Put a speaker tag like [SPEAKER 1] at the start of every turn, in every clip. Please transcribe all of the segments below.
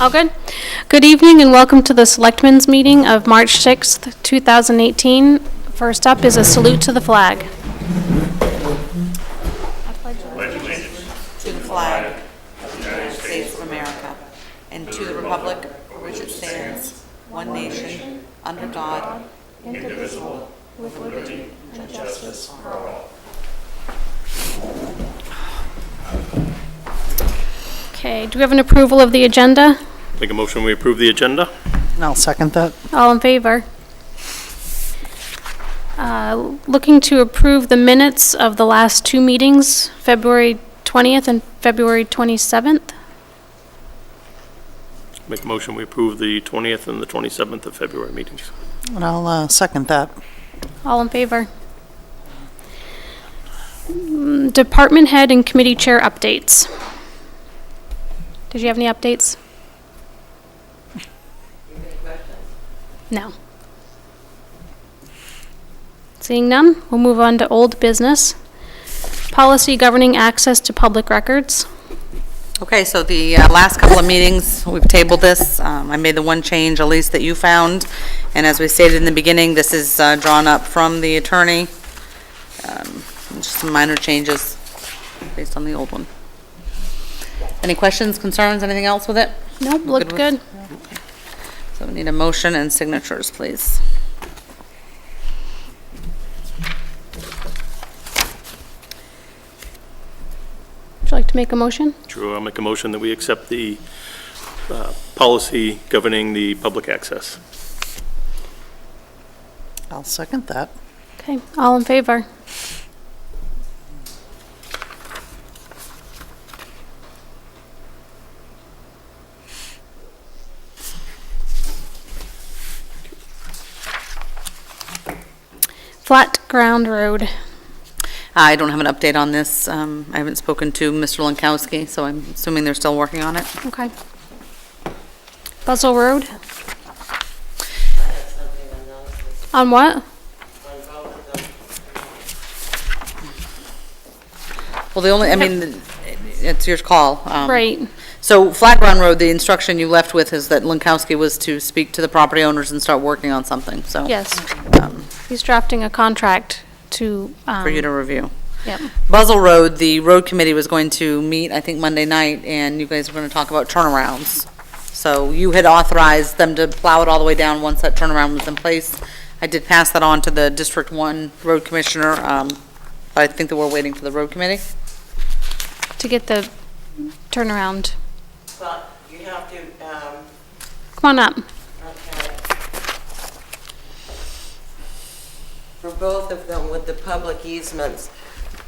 [SPEAKER 1] All good? Good evening and welcome to the Selectmen's Meeting of March 6th, 2018. First up is a salute to the flag.
[SPEAKER 2] To the flag of the United States of America and to the republic for which it stands, one nation, under God,
[SPEAKER 1] Okay, do we have an approval of the agenda?
[SPEAKER 3] Make a motion, we approve the agenda?
[SPEAKER 4] And I'll second that.
[SPEAKER 1] All in favor? Uh, Looking to approve the minutes of the last two meetings, February 20th and February 27th.
[SPEAKER 3] Make a motion, we approve the 20th and the 27th of February meetings.
[SPEAKER 4] And I'll uh, second that.
[SPEAKER 1] All in favor? Mm, Department head and committee chair updates. Did you have any updates? No. Seeing none, we'll move on to old business. Policy governing access to public records.
[SPEAKER 2] Okay, so the uh, last couple of meetings, we've tabled this. Um, I made the one change, at least that you found. And as we stated in the beginning, this is uh, drawn up from the attorney. Um, Just some minor changes based on the old one. Any questions, concerns, anything else with it?
[SPEAKER 1] Nope, looked good.
[SPEAKER 2] Good So we need a motion and signatures, please.
[SPEAKER 1] Would you like to make a motion?
[SPEAKER 3] Drew, I'll make a motion that we accept the uh, policy governing the public access.
[SPEAKER 4] I'll second that.
[SPEAKER 1] Okay, all in favor? Flat Ground Road.
[SPEAKER 2] I don't have an update on this. Um, I haven't spoken to Mr. Lankowski, so I'm assuming they're still working on it.
[SPEAKER 1] Okay. Buzzell Road? On what?
[SPEAKER 2] Well, the only, I mean, it's your call. um,
[SPEAKER 1] Right.
[SPEAKER 2] So Flat Ground Road, the instruction you left with is that Lankowski was to speak to the property owners and start working on something, so.
[SPEAKER 1] Yes.
[SPEAKER 2] um,
[SPEAKER 1] He's drafting a contract to, um...
[SPEAKER 2] For you to review.
[SPEAKER 1] Yep.
[SPEAKER 2] Buzzell Road, the road committee was going to meet, I think, Monday night, and you guys were going to talk about turnarounds. So you had authorized them to plow it all the way down once that turnaround was in place. I did pass that on to the District One Road Commissioner, um, but I think that we're waiting for the road committee.
[SPEAKER 1] To get the turnaround.
[SPEAKER 5] But you have to, um,
[SPEAKER 1] Come on up.
[SPEAKER 5] okay. For both of them with the public easements,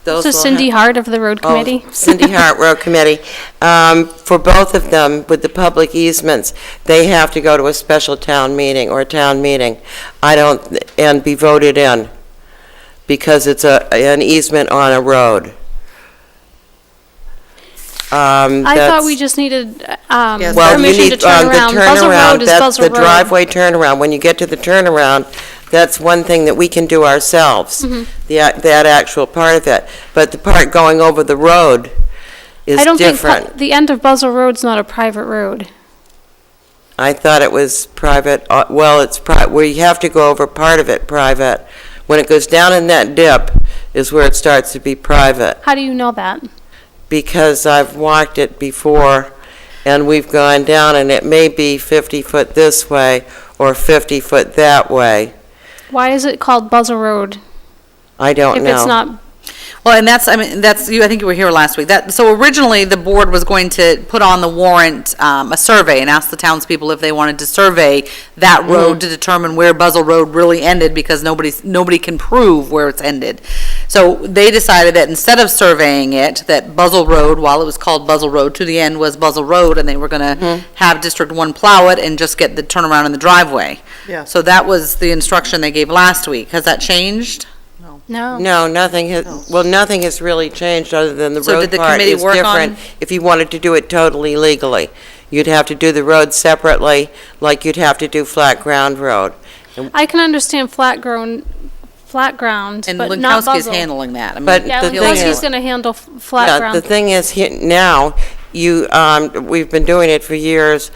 [SPEAKER 5] those
[SPEAKER 1] This
[SPEAKER 5] will
[SPEAKER 1] is Cindy
[SPEAKER 5] have-
[SPEAKER 1] Hart of the Road
[SPEAKER 5] Oh,
[SPEAKER 1] Committee.
[SPEAKER 5] Cindy Hart Road Committee. Um, for both of them with the public easements, they have to go to a special town meeting or a town meeting. I don't, and be voted in because it's a, an easement on a road. Um,
[SPEAKER 1] I thought we just needed um,
[SPEAKER 2] Yes.
[SPEAKER 5] Well, you
[SPEAKER 1] permission to
[SPEAKER 5] need,
[SPEAKER 1] turn
[SPEAKER 5] um, the
[SPEAKER 1] around. Buzzell Road
[SPEAKER 5] turnaround,
[SPEAKER 1] is
[SPEAKER 5] that's the
[SPEAKER 1] Buzzell Road.
[SPEAKER 5] driveway turnaround. When you get to the turnaround, that's one thing that we can do ourselves,
[SPEAKER 1] Mm-hmm.
[SPEAKER 5] the, ac- that actual part of it. But the part going over the road is
[SPEAKER 1] I don't think,
[SPEAKER 5] different.
[SPEAKER 1] pu- the end of Buzzell Road's not a private road.
[SPEAKER 5] I thought it was private, uh, well, it's pri, where you have to go over part of it private. When it goes down in that dip is where it starts to be private,
[SPEAKER 1] How do you know that?
[SPEAKER 5] because I've walked it before, and we've gone down, and it may be 50 foot this way or 50 foot that way.
[SPEAKER 1] Why is it called Buzzell Road?
[SPEAKER 5] I don't
[SPEAKER 1] If
[SPEAKER 5] know.
[SPEAKER 1] it's not,
[SPEAKER 2] Well, and that's, I mean, that's, you, I think you were here last week. That, so originally, the board was going to put on the warrant, um, a survey and ask the townspeople if they wanted to survey that road to determine where Buzzell Road really ended because nobody's, nobody can prove where it's ended. So they decided that instead of surveying it, that Buzzell Road, while it was called Buzzell Road, to the end was Buzzell Road and they were gonna have District One plow it and just get the turnaround in the driveway.
[SPEAKER 4] Yeah.
[SPEAKER 2] So that was the instruction they gave last week. Has that changed?
[SPEAKER 1] no.
[SPEAKER 5] No, nothing has, well, nothing has really changed other than the
[SPEAKER 2] So did
[SPEAKER 5] road
[SPEAKER 2] the
[SPEAKER 5] part
[SPEAKER 2] committee
[SPEAKER 5] is
[SPEAKER 2] work
[SPEAKER 5] different.
[SPEAKER 2] on-
[SPEAKER 5] If you wanted to do it totally legally, you'd have to do the road separately, like you'd have to do flat ground road.
[SPEAKER 1] I can understand flat grown, flat ground,
[SPEAKER 2] And
[SPEAKER 1] but not
[SPEAKER 2] Lankowski's
[SPEAKER 1] Buzzell.
[SPEAKER 2] handling that. I mean,
[SPEAKER 5] But
[SPEAKER 1] Yeah,
[SPEAKER 5] The thing
[SPEAKER 1] Lankowski's
[SPEAKER 5] is-
[SPEAKER 1] gonna handle f-
[SPEAKER 5] Yeah,
[SPEAKER 1] flat ground.
[SPEAKER 5] The thing is, he- now, you, um, we've been doing it for years